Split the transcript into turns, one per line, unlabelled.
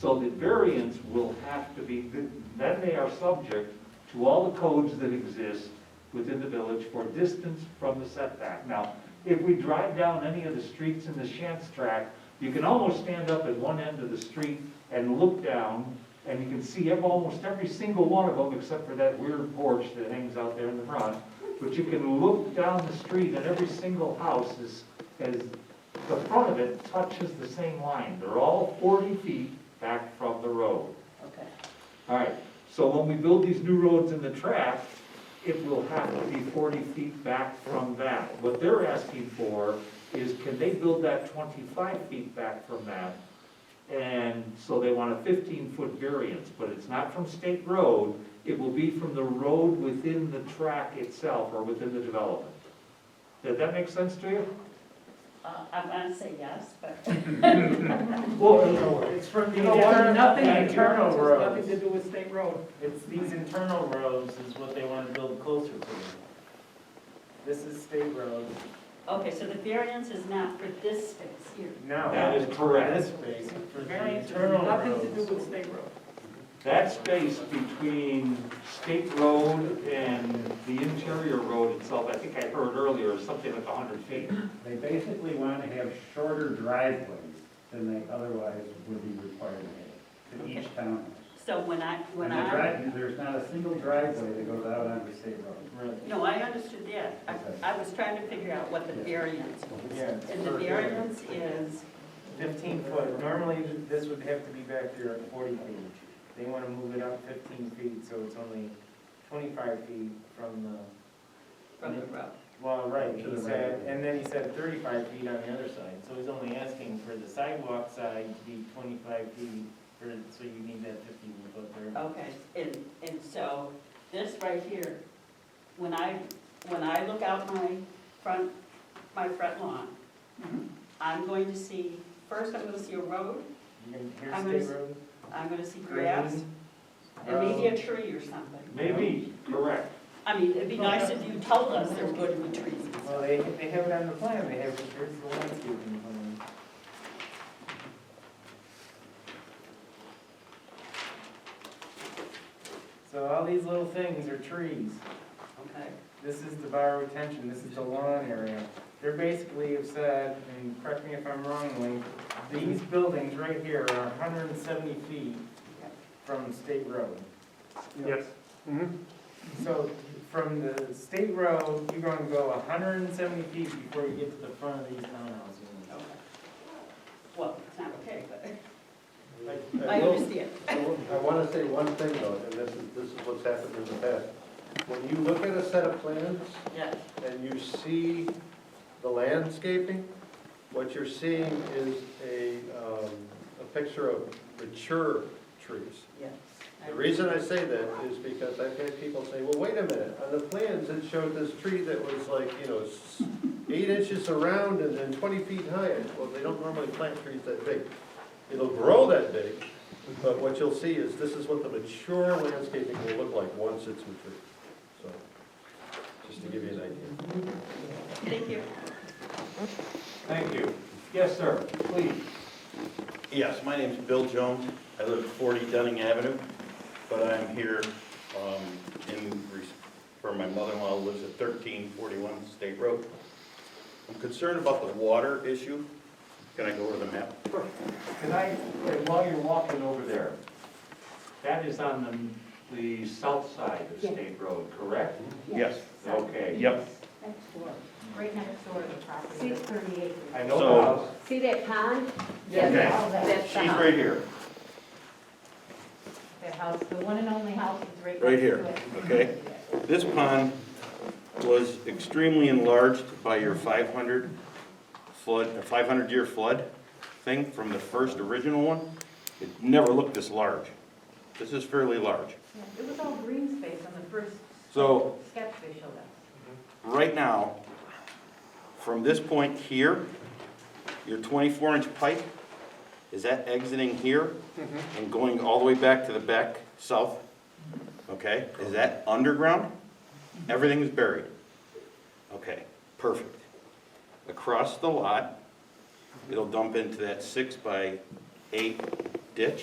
So the variance will have to be, then they are subject to all the codes that exist within the village for distance from the setback. Now, if we drive down any of the streets in the Shantz tract, you can almost stand up at one end of the street and look down, and you can see ev- almost every single one of them, except for that weird porch that hangs out there in the front. But you can look down the street and every single house is, is, the front of it touches the same line. They're all forty feet back from the road.
Okay.
All right, so when we build these new roads in the track, it will have to be forty feet back from that. What they're asking for is can they build that twenty-five feet back from that? And so they want a fifteen-foot variance, but it's not from state road, it will be from the road within the track itself or within the development. Did that make sense to you?
Uh, I'm gonna say yes, but.
Well,
It's from the.
You know what?
internal-
Nothing
the
internal
Nothing to
roads.
do with state road.
It's these internal roads is what they want to build closer to. This is state road.
Okay, so the variance is not for this space here.
No.
That is correct.
This space, for the
Variance has
internal
nothing to do
roads.
with state road.
That space between State Road and the interior road itself, I think I heard earlier, is something like 100 feet.
They basically want to have shorter driveways than they otherwise would be required to have to each townhouse.
So when I, when
And the
I,
drive, there's not a single driveway that goes out onto state road.
Right.
no, I understood that. I, I was trying to figure out what the variance was.
Yeah, it's
And the
for-
variance is,
Fifteen foot, normally this would have to be back here at forty feet. They want to move it up fifteen feet, so it's only twenty-five feet from the,
from the road.
well, right,
To
he
the
said,
right.
and then he said thirty-five feet on the other side. So he's only asking for the sidewalk side to be twenty-five feet, for, so you need that fifteen foot there.
Okay, and, and so this right here, when I, when I look out my front, my front lawn,
Mm-hmm.
I'm going to see, first I'm gonna see a road,
You can
I'm
hear
gonna
state road?
I'm gonna see grass, and maybe a tree or something.
Maybe, correct.
I mean, it'd be nice if you told us there were going to be trees.
Um, Well, they, they have it on the plan, they have, here's the landscaping plan. So all these little things are trees.
Okay,
This is the bar retention, this is the lawn area. They're basically have said, and correct me if I'm wrong, Lee, these buildings right here are hundred and seventy feet from state road.
Yes.
So from the state road, you're gonna go hundred and seventy feet before you get to the front of these townhouse units.
okay. Well, it's not okay, but
Like,
I
uh,
understand.
I want to say one thing though, and this is, this is what's happened in the past. When you look at a set of plans
Yes.
and you see the landscaping, what you're seeing is a, um, a picture of mature trees.
Yes.
The reason I say that is because I've had people say, well, wait a minute, on the plans, it showed this tree that was like, you know, s- eight inches around and then twenty feet high. Well, they don't normally plant trees that big. It'll grow that big, but what you'll see is this is what the mature landscaping will look like once it's mature. So, just to give you an idea.
Thank you.
Thank you. Yes, sir, please.
Yes, my name's Bill Jones. I live at 40 Dunning Avenue, but I'm here um, in, res- for my mother-in-law who lives at 1341 State Road. I'm concerned about the water issue. Can I go over the map?
Can I, while you're walking over there, that is on the, the south side of State Road, correct?
Mm-hmm.
Yes.
Okay.
Yep.
Next door, right next door to the property. Six thirty-eight.
I know
So-
the house.
See that pond?
Yeah, Okay.
That's the
uh-huh.
She's
house.
right here.
The house, the one and only house is right.
Right here,
next to it.
okay? This pond was extremely enlarged by your 500 flood, 500-year flood thing from the first original one. It never looked this large. This is fairly large.
Yeah, It was all green space on the first
So
sketch they showed us.
right now, from this point here, your 24-inch pipe, is that exiting here and going all the way back to the back south? Okay, is that underground? Everything is buried? Okay, perfect. Across the lot, it'll dump into that six by eight ditch.